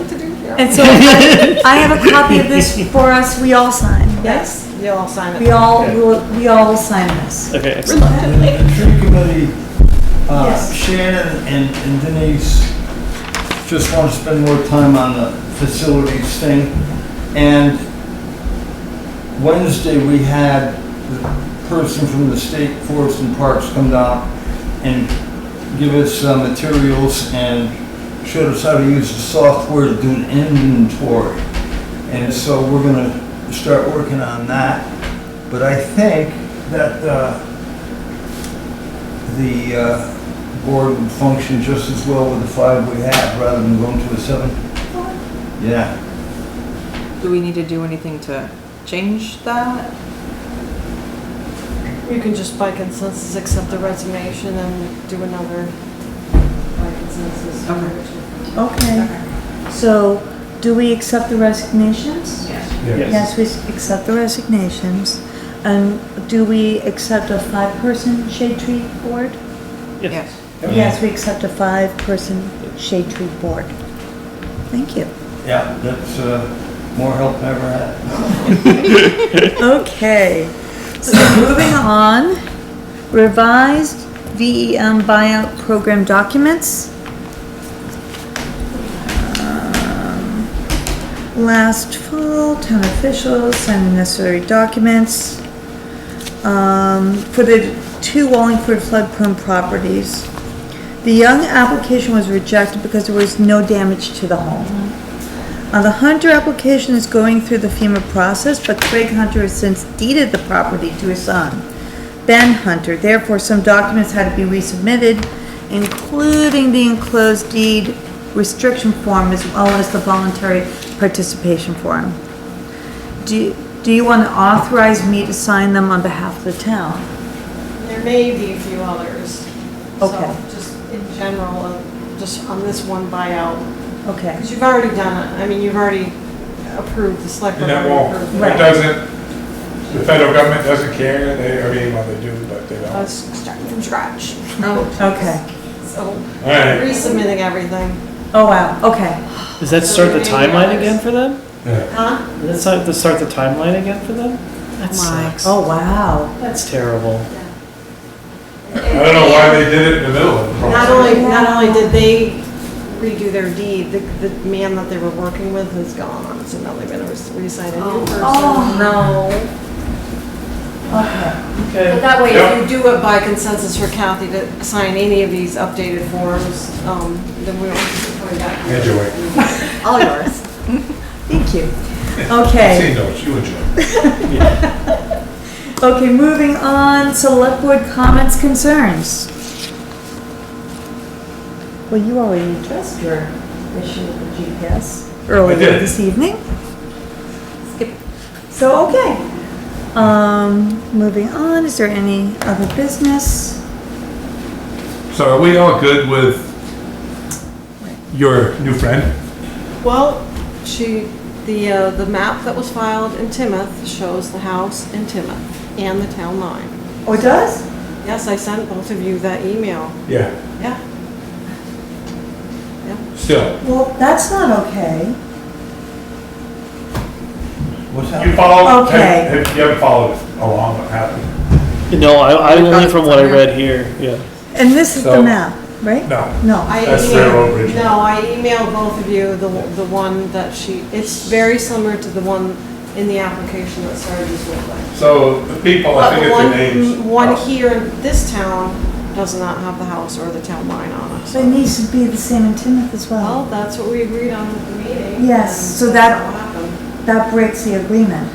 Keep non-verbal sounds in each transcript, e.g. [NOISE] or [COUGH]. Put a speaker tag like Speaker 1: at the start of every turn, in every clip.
Speaker 1: And so I have a copy of this for us, we all sign, yes?
Speaker 2: Yes, you'll all sign
Speaker 1: We
Speaker 2: it.
Speaker 1: all, we'll- we all sign this.
Speaker 3: Okay, excellent.
Speaker 2: Reluctantly.
Speaker 4: The tree committee, uh,
Speaker 1: Yes.
Speaker 4: Shannon and and Denise just want to spend more time on the facilities thing. And Wednesday, we had the person from the State Forest and Parks come down and give us uh, materials and showed us how to use the software to do an inventory. And so we're gonna start working on that. But I think that, uh, the uh, board would function just as well with the five we have rather than going to a seven? Yeah.
Speaker 2: Do we need to do anything to change that?
Speaker 5: You can just by consensus accept the resignation and do another by consensus.
Speaker 2: Okay.
Speaker 1: Okay, so do we accept the resignations? Yes, we accept the resignations. And do we accept a five-person shade tree board?
Speaker 3: Yes.
Speaker 1: Yes, we accept a five-person shade tree board. Thank you.
Speaker 4: Yeah, that's uh, more help than I ever had.
Speaker 1: Okay, so moving on, revised VEM buyout program documents. Um, Last fall, town officials signed the necessary documents um, for the two Wallingford flood prone properties. The Young application was rejected because there was no damage to the home. Uh, the Hunter application is going through the FEMA process, but Craig Hunter has since deeded the property to his son, Ben Hunter. Therefore, some documents had to be resubmitted, including the enclosed deed restriction form as well as the voluntary participation form. Do, do you want to authorize me to sign them on behalf of the town?
Speaker 5: There may be a few others. So,
Speaker 1: Okay.
Speaker 5: Just in general, uh, just on this one buyout,
Speaker 1: Okay,
Speaker 5: because you've already done it. I mean, you've already approved the select.
Speaker 6: And
Speaker 5: board
Speaker 6: that
Speaker 5: already
Speaker 6: won't,
Speaker 5: approved
Speaker 6: it
Speaker 1: Right.
Speaker 6: doesn't, the federal government doesn't care, they, I mean, well, they do, but they don't.
Speaker 5: I
Speaker 6: All
Speaker 5: was starting from scratch.
Speaker 1: okay.
Speaker 5: So
Speaker 6: right.
Speaker 5: resubmitting everything.
Speaker 1: Oh, wow, okay.
Speaker 3: Does that start the timeline again for them?
Speaker 5: Huh?
Speaker 3: Does that start- does that start the timeline again for them? That
Speaker 2: My.
Speaker 3: sucks.
Speaker 1: Oh, wow.
Speaker 3: That's terrible.
Speaker 6: I don't know why they did it in the middle of the
Speaker 5: Not
Speaker 6: process.
Speaker 5: only, not only did they redo their deed, the, the man that they were working with is gone, so now they're gonna res- resign a new person.
Speaker 1: no.
Speaker 5: Oh.
Speaker 1: Okay.
Speaker 5: But
Speaker 3: Okay.
Speaker 5: that way,
Speaker 6: Yep.
Speaker 5: if you do it by consensus for Kathy to sign any of these updated forms, um, then we will coming back. here.
Speaker 6: Enjoy.
Speaker 5: All yours.
Speaker 1: Thank you. Okay,
Speaker 6: See, no, you enjoy.
Speaker 1: okay, moving on, select board comments, concerns. Well, you already addressed your issue with the GPS earlier
Speaker 6: did.
Speaker 1: this evening. Skip. So, okay. Um, moving on, is there any other business?
Speaker 6: So are we all good with your new friend?
Speaker 5: Well, she, the, uh, the map that was filed in Timoth shows the house in Timoth and the town line.
Speaker 1: Oh, it does?
Speaker 5: Yes, I sent both of you that email.
Speaker 6: Yeah.
Speaker 5: Yeah.
Speaker 6: Still,
Speaker 1: Well, that's not okay.
Speaker 4: What's
Speaker 6: you
Speaker 4: that?
Speaker 6: follow, have-
Speaker 1: Okay.
Speaker 6: have- you haven't followed along what happened?
Speaker 3: No, I, I only from what I read here, yeah.
Speaker 1: And this is the
Speaker 6: So-
Speaker 1: map, right?
Speaker 6: No.
Speaker 1: No,
Speaker 5: I
Speaker 6: That's
Speaker 5: emailed-
Speaker 6: Railroad Bridge.
Speaker 5: No, I emailed both of you the, the one that she, it's very similar to the one in the application that Sarah's with. like.
Speaker 6: So the people, Oh, I
Speaker 5: But
Speaker 6: think
Speaker 5: the
Speaker 6: it's the
Speaker 5: one, one
Speaker 6: names. Oh.
Speaker 5: here in this town does not have the house or the town line on it.
Speaker 1: so it needs to be the same in Timoth as
Speaker 5: Well,
Speaker 1: well.
Speaker 5: that's what we agreed on at the meeting.
Speaker 1: Yes,
Speaker 5: and
Speaker 1: so
Speaker 5: that's
Speaker 1: that-
Speaker 5: what happened.
Speaker 1: That breaks the agreement.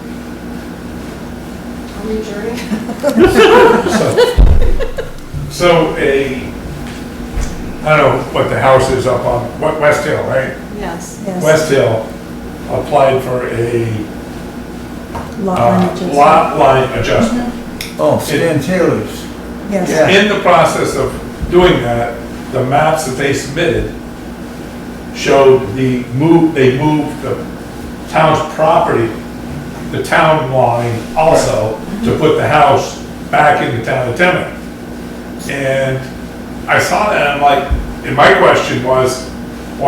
Speaker 5: Are we adjourned?
Speaker 1: [LAUGHS]
Speaker 6: So a, I don't know what the house is up on, what, West Hill, right?
Speaker 5: Yes.
Speaker 1: Yes.
Speaker 6: West Hill applied for a
Speaker 1: Lot line
Speaker 6: uh,
Speaker 1: adjustment. Mm-hmm.
Speaker 6: lot line adjustment.
Speaker 4: Oh, Stan Taylor's.
Speaker 1: Yes,
Speaker 4: Yeah.
Speaker 6: In the process of doing that, the maps that they submitted showed the move, they moved the town's property, the town line also, to put the house back in the town of Timoth. And I saw that, and I'm like, and my question was,